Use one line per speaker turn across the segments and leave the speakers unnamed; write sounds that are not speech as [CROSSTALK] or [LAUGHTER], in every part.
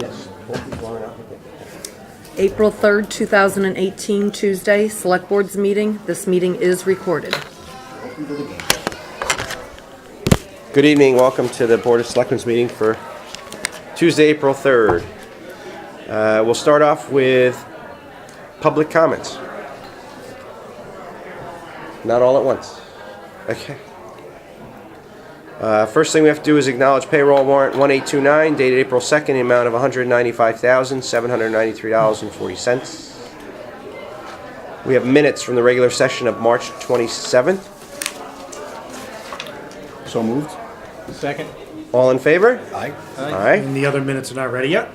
Yes. Hope he's lining up again.
April 3rd, 2018, Tuesday, Select Board's meeting. This meeting is recorded.
Welcome to the game. Good evening, welcome to the Board of Selectmen's meeting for Tuesday, April 3rd. Uh, We'll start off with public comments. Not all at once. Okay. Uh, First thing we have to do is acknowledge payroll warrant 1829 dated April 2nd, in the amount of $195,793.40. We have minutes from the regular session of March 27th.
So moved.
Second.
All in favor?
Aye.
All right.
And the other minutes are not ready yet.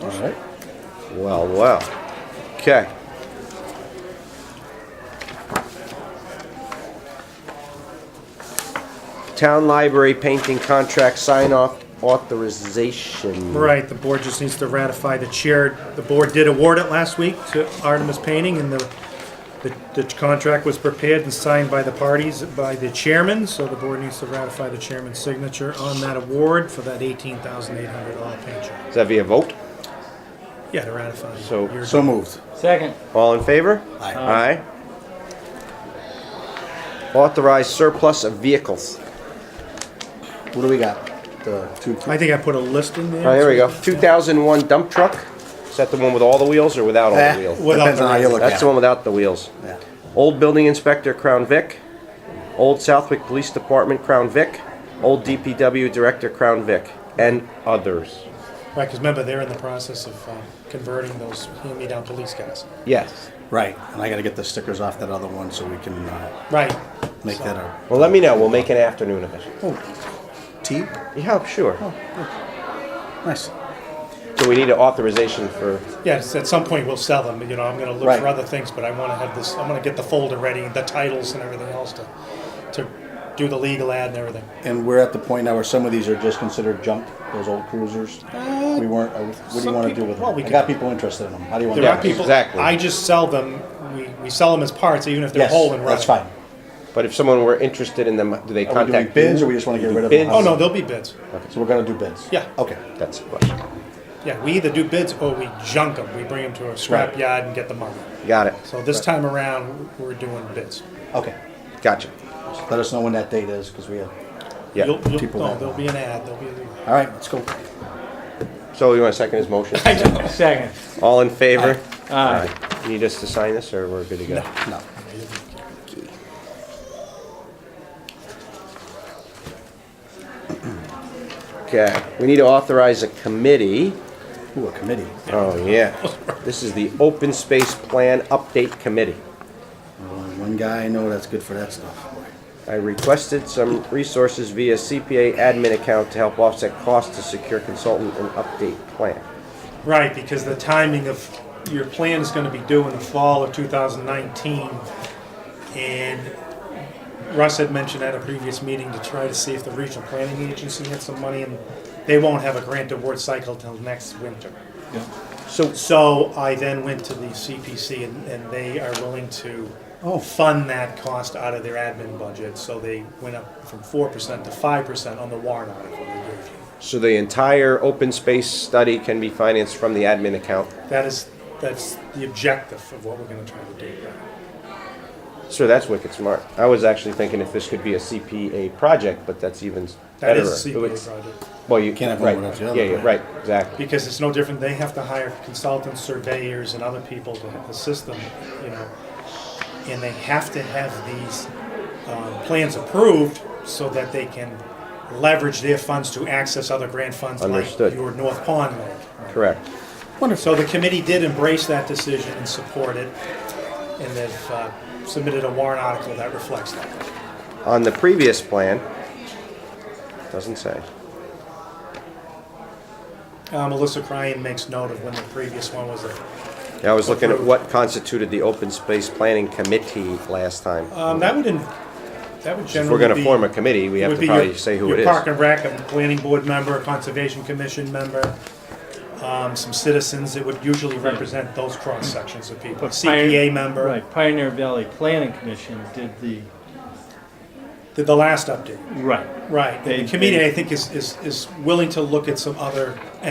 All right.
Well, well. Okay. Town library painting contract sign off authorization.
Right, the board just needs to ratify the chair. The board did award it last week to Artemis Painting, and the, the, the contract was prepared and signed by the parties, by the chairman, so the board needs to ratify the chairman's signature on that award for that eighteen thousand eight hundred dollar paint job.
Is that via vote?
Yeah, to ratify.
So-
your-
So moved.
Second.
All in favor?
Aye.
Aye. Authorized surplus of vehicles.
What do we got? The two.
I think I put a list in there.
All right, here we go. 2001 dump truck. Is that the one with all the wheels or without all
Eh,
the wheels?
Without
Depends
the
on how you look at it.
That's the one without the wheels.
Yeah.
Old Building Inspector Crown Vic, Old Southwick Police Department Crown Vic, Old DPW Director Crown Vic, and others.
Right, because remember, they're in the process of um, converting those hand-me-down police cars.
Yes.
Right, and I gotta get the stickers off that other one so we can uh,
Right.
make
So-
that a
Well, let me know. We'll make an afternoon of it.
oh, T.
Yeah, sure.
Nice.
So we need an authorization for.
Yes, at some point we'll sell them, you know, I'm gonna look
Right.
for other things, but I wanna have this, I'm gonna get the folder ready, the titles and everything else to, to do the legal ad and everything.
And we're at the point now where some of these are just considered junk. Those old cruisers. we weren't. Uh, what do
some
you want to do
people-
with them?
well, we
I
can-
got people interested in them. How do you want
There
to?
Yeah,
are people,
exactly.
I just sell them, we, we sell them as parts, even if they're
Yes,
whole and running.
that's fine.
But if someone were interested in them, do they
Are we doing
contact
bids,
you?
or we just want to get rid of
bids?
them?
Oh, no, there'll be bids,
So we're gonna do bids.
Yeah.
Okay.
That's the question.
yeah, we either do bids or we junk them, we bring them to a scrap
Right.
yard and get them out.
Got it.
So this time around, we're doing bids.
Okay.
Gotcha.
Let us know when that date is, because we have.
Yeah.
You'll, you'll,
people
no,
that-
there'll be an ad, there'll be a.
All right, let's go.
So you want to second his
[LAUGHS]
motion?
Second.
All in favor?
Aye.
Need us to sign this, or we're good to go?
No.
Okay. We need to authorize a committee.
Ooh, a committee.
Oh, yeah. This is the Open Space Plan Update Committee.
Only One guy I know that's good for that stuff.
I requested some resources via CPA admin account to help offset costs to secure consultant and update plan.
Right, because the timing of your plan is gonna be due in the fall of 2019. And Russ had mentioned at a previous meeting to try to see if the regional planning agency had some money and they won't have a grant award cycle till next winter.
So,
So I then went to the CPC and, and they are willing to
Oh.
fund that cost out of their admin budget. So they went up from 4% to 5% on the warrant article they gave you.
so the entire open space study can be financed from the admin account.
That is, that's the objective of what we're gonna try to do.
Sure, that's wicked smart. I was actually thinking if this could be a CPA project, but that's even
That
better.
is a CPA
It's-
project,
Well, you
Can't have
right.
one without the other,
Yeah, yeah,
right.
right, exactly.
because it's no different, they have to hire consultants, surveyors, and other people to assist them, you know. And they have to have these, um, plans approved so that they can leverage their funds to access other grant funds like
Understood.
your North Pond Lake.
Correct.
So the committee did embrace that decision and support it, and they've, uh, submitted a warrant article that reflects that.
On the previous plan, doesn't say.
Uh, Melissa Cryan makes note of when the previous one was a
Yeah, I was looking at what constituted the open space planning committee last time.
Um, that would, in- that would
If we're gonna
generally be.
form a committee, we have
would
to
be your-
probably say who it
Your park
is.
and rec, a planning board member, a conservation commission member, um, some citizens that would usually represent those cross sections of people.
But
CPA
Pioneer-
member,
Right, Pioneer Valley Planning Commission did the,
the, the last update,
right.
right.
They-
The committee,
they-
I think, is, is, is willing to look at some other